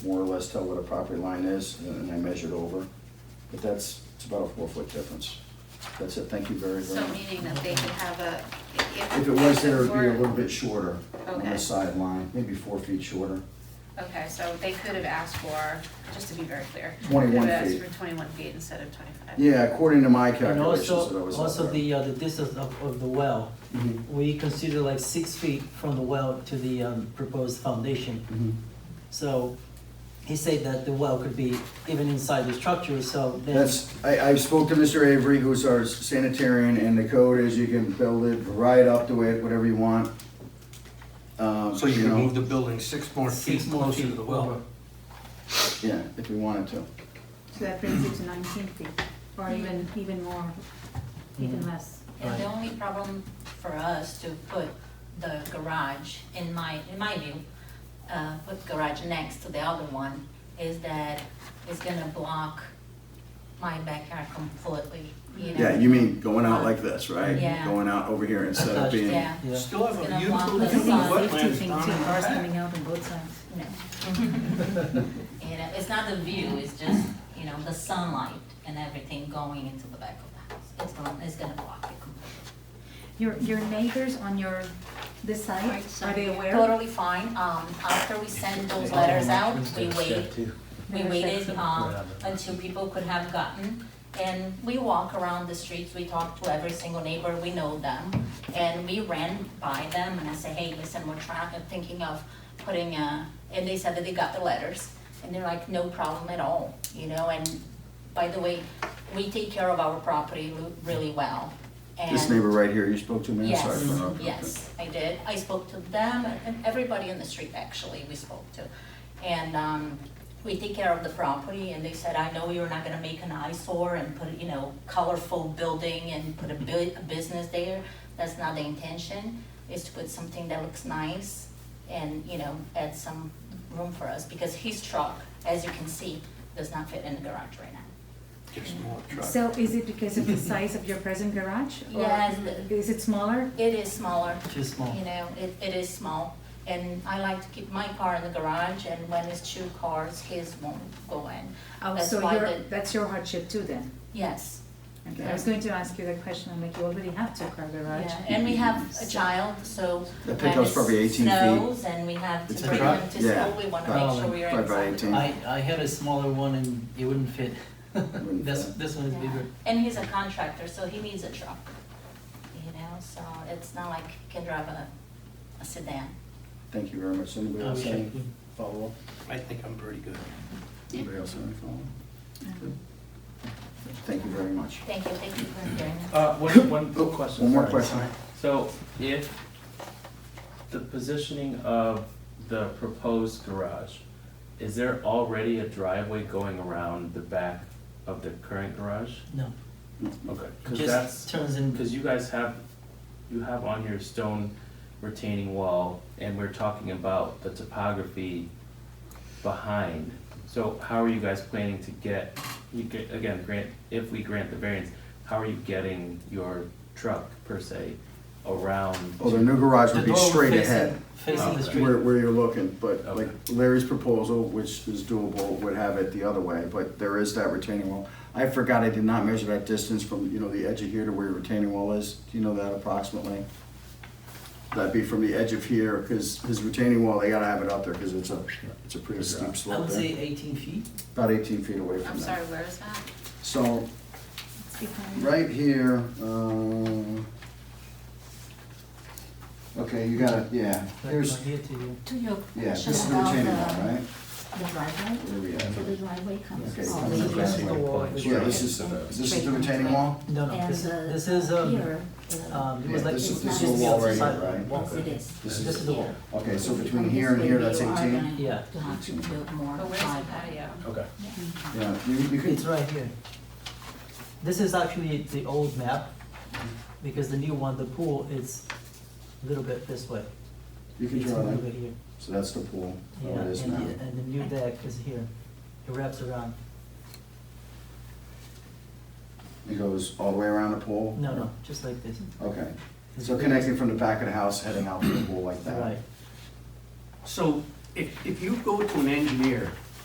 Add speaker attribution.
Speaker 1: more or less tell what a property line is, and I measured over. But that's, it's about a four-foot difference. That's it, thank you very, very
Speaker 2: So
Speaker 1: much.
Speaker 2: meaning that they could have a, if.
Speaker 1: If it was there, it'd be a
Speaker 2: were-
Speaker 1: little bit shorter on
Speaker 2: Okay.
Speaker 1: the sideline, maybe four feet shorter.
Speaker 2: Okay, so they could have asked for, just to be very clear.
Speaker 1: 21
Speaker 2: could have asked
Speaker 1: feet.
Speaker 2: for twenty-one feet instead of twenty-five.
Speaker 1: Yeah, according to my
Speaker 3: And
Speaker 1: calculations that I
Speaker 3: also,
Speaker 1: was out
Speaker 3: also
Speaker 1: there.
Speaker 3: the, uh, the distance of, of the well,
Speaker 1: Mhm,
Speaker 3: we consider like six feet from the well to the, um, proposed foundation.
Speaker 1: mhm.
Speaker 3: So he said that the well could be even inside the structure, so then.
Speaker 1: That's, I, I spoke to Mr. Avery, who's our sanitarian, and the code is you can build it right up to it, whatever you want. Um,
Speaker 4: So you can
Speaker 1: know,
Speaker 4: move the building six more feet
Speaker 3: Six more
Speaker 4: closer to
Speaker 3: feet
Speaker 4: the well.
Speaker 3: over.
Speaker 1: Yeah, if we wanted to.
Speaker 5: So that brings it to nineteen feet, or even, even more, even
Speaker 6: Hmm.
Speaker 3: Mhm.
Speaker 5: less.
Speaker 6: And the
Speaker 3: Right.
Speaker 6: only problem for us to put the garage, in my, in my view, uh, put garage next to the other one, is that it's gonna block my backyard completely, you know?
Speaker 1: Yeah, you mean going out like this, right?
Speaker 6: Yeah.
Speaker 1: Going out over here instead of being.
Speaker 6: Yeah,
Speaker 3: Yeah.
Speaker 4: Still have
Speaker 6: It's
Speaker 4: a
Speaker 6: gonna
Speaker 4: beautiful
Speaker 6: block the
Speaker 4: looking
Speaker 6: sun.
Speaker 5: Safety
Speaker 4: wetlands
Speaker 5: thing
Speaker 4: down in
Speaker 5: too,
Speaker 4: the
Speaker 5: cars
Speaker 4: back.
Speaker 5: coming out on both sides.
Speaker 6: no. You know, it's not the view, it's just, you know, the sunlight and everything going into the back of the house. It's gonna, it's gonna block it completely.
Speaker 5: Your, your neighbors on your, this side,
Speaker 2: Right
Speaker 5: are
Speaker 2: side.
Speaker 5: they aware?
Speaker 6: Totally fine, um, after we send those letters out, we wait We waited um, until people could have gotten, and we walk around the streets, we talk to every single neighbor, we know them. And we ran by them and I said, hey, listen, we're trying, I'm thinking of putting a, and they said that they got the letters. And they're like, no problem at all, you know, and by the way, we take care of our property lo- really well.
Speaker 1: This
Speaker 6: and-
Speaker 1: neighbor right here you spoke to, man, sorry.
Speaker 6: Yes,
Speaker 1: for interrupting.
Speaker 6: yes, I did. I spoke to them and everybody on the street, actually, we spoke to. And um, we take care of the property and they said, I know you're not gonna make an eyesore and put, you know, colorful building and put a bu- a business there. That's not the intention, is to put something that looks nice and, you know, add some room for us. Because his truck, as you can see, does not fit in the garage right now.
Speaker 4: Just more truck.
Speaker 5: So is it because of the size of your present garage? or
Speaker 6: Yes, the-
Speaker 5: Is it smaller?
Speaker 6: It is smaller,
Speaker 3: Too small.
Speaker 6: You know, it, it is small, and I like to keep my car in the garage, and when it's two cars, his won't go in.
Speaker 5: Oh,
Speaker 6: That's
Speaker 5: so
Speaker 6: why
Speaker 5: your-
Speaker 6: the-
Speaker 5: That's your hardship too then?
Speaker 6: Yes,
Speaker 5: Okay, I was going to ask you that question, I'm like, you already have two car garage.
Speaker 6: yeah, and we have a child, so.
Speaker 1: The
Speaker 6: when
Speaker 1: pickup's
Speaker 6: it
Speaker 1: probably 18 feet.
Speaker 6: Snows, and we have to
Speaker 1: It's
Speaker 3: a
Speaker 6: bring
Speaker 3: truck?
Speaker 6: him to
Speaker 1: Yeah,
Speaker 6: school, we wanna make sure we are
Speaker 1: probably about
Speaker 6: inside. the
Speaker 1: 18.
Speaker 3: I, I had a smaller one and it wouldn't fit. That's,
Speaker 1: fit.
Speaker 3: this one is
Speaker 6: Yeah.
Speaker 3: bigger.
Speaker 6: And he's a contractor, so he needs a truck, you know, so it's not like he can drive a, a sedan.
Speaker 1: Thank you very much. Anybody else have
Speaker 3: Okay.
Speaker 1: any follow-up?
Speaker 4: I think I'm pretty good.
Speaker 1: Anybody else have any follow-up? Good. Thank you very much.
Speaker 6: Thank you, thank you for hearing us.
Speaker 7: Uh, one, one
Speaker 1: Oh,
Speaker 7: question.
Speaker 1: One more
Speaker 7: sorry.
Speaker 1: question.
Speaker 7: So if the positioning of the proposed garage, is there already a driveway going around the back of the current garage?
Speaker 3: No,
Speaker 7: Okay,
Speaker 3: it
Speaker 7: cause
Speaker 3: just
Speaker 7: that's,
Speaker 3: turns in.
Speaker 7: cause you guys have, you have on your stone retaining wall and we're talking about the topography behind. So how are you guys planning to get, you get, again, grant, if we grant the variance, how are you getting your truck per se around?
Speaker 1: Oh, the new garage
Speaker 3: the
Speaker 1: would be
Speaker 3: door
Speaker 1: straight
Speaker 3: facing-
Speaker 1: ahead,
Speaker 3: Facing the
Speaker 7: Okay.
Speaker 3: street.
Speaker 1: where, where you're looking, but like
Speaker 7: Okay.
Speaker 1: Larry's proposal, which is doable, would have it the other way, but there is that retaining wall. I forgot I did not measure that distance from, you know, the edge of here to where your retaining wall is. Do you know that approximately? That'd be from the edge of here, because his retaining wall, they gotta have it out there, because it's a, it's a pretty steep
Speaker 3: I
Speaker 1: slope
Speaker 3: would say
Speaker 1: there.
Speaker 3: eighteen feet.
Speaker 1: About eighteen feet away
Speaker 2: I'm
Speaker 1: from
Speaker 2: sorry,
Speaker 1: that.
Speaker 2: where is that?
Speaker 1: So,
Speaker 5: It's behind-
Speaker 1: right here, um, okay, you gotta, yeah,
Speaker 3: like
Speaker 1: here's,
Speaker 3: from here to here.
Speaker 6: To your
Speaker 1: Yeah, this
Speaker 6: question
Speaker 1: is the
Speaker 6: about
Speaker 1: retaining wall, right?
Speaker 6: the driveway,
Speaker 1: Where we at?
Speaker 6: So the driveway comes
Speaker 1: Okay,
Speaker 6: all
Speaker 1: comes
Speaker 6: the
Speaker 1: up
Speaker 6: way
Speaker 1: that
Speaker 6: here.
Speaker 1: way. Yeah, this is, uh, this is the retaining wall?
Speaker 3: No, no,
Speaker 6: And
Speaker 3: this
Speaker 6: the-
Speaker 3: is, this is, um,
Speaker 6: here, uh,
Speaker 3: um, it
Speaker 1: Yeah,
Speaker 3: was like.
Speaker 1: this is,
Speaker 6: it's
Speaker 1: this
Speaker 6: not-
Speaker 1: is
Speaker 3: just
Speaker 1: the
Speaker 3: the
Speaker 1: wall right
Speaker 3: outside.
Speaker 1: here,
Speaker 6: Yes, it
Speaker 1: right?
Speaker 6: is.
Speaker 1: This
Speaker 3: This
Speaker 1: is,
Speaker 3: is the wall.
Speaker 6: Here.
Speaker 1: okay, so between
Speaker 6: From this
Speaker 1: here and here,
Speaker 6: way,
Speaker 1: that's
Speaker 6: you are
Speaker 1: eighteen?
Speaker 6: gonna
Speaker 3: Yeah.
Speaker 6: have to build more
Speaker 2: But where's the
Speaker 6: driveway.
Speaker 2: patio?
Speaker 7: Okay.
Speaker 1: Yeah, you, you could,
Speaker 3: It's right here. This is actually the old map, because the new one, the pool, is a little bit this way.
Speaker 1: you could
Speaker 3: It's a
Speaker 1: draw
Speaker 3: little bit
Speaker 1: that.
Speaker 3: here.
Speaker 1: So that's the pool,
Speaker 3: Yeah,
Speaker 1: how it is
Speaker 3: and,
Speaker 1: now.
Speaker 3: the- and the new deck is here. It wraps around.
Speaker 1: It goes all the way around the pool?
Speaker 3: uh, No, no, just like this.
Speaker 1: Okay, so connecting from the back of the house, heading out to the pool like that?
Speaker 3: Right.
Speaker 4: So if, if you go to an engineer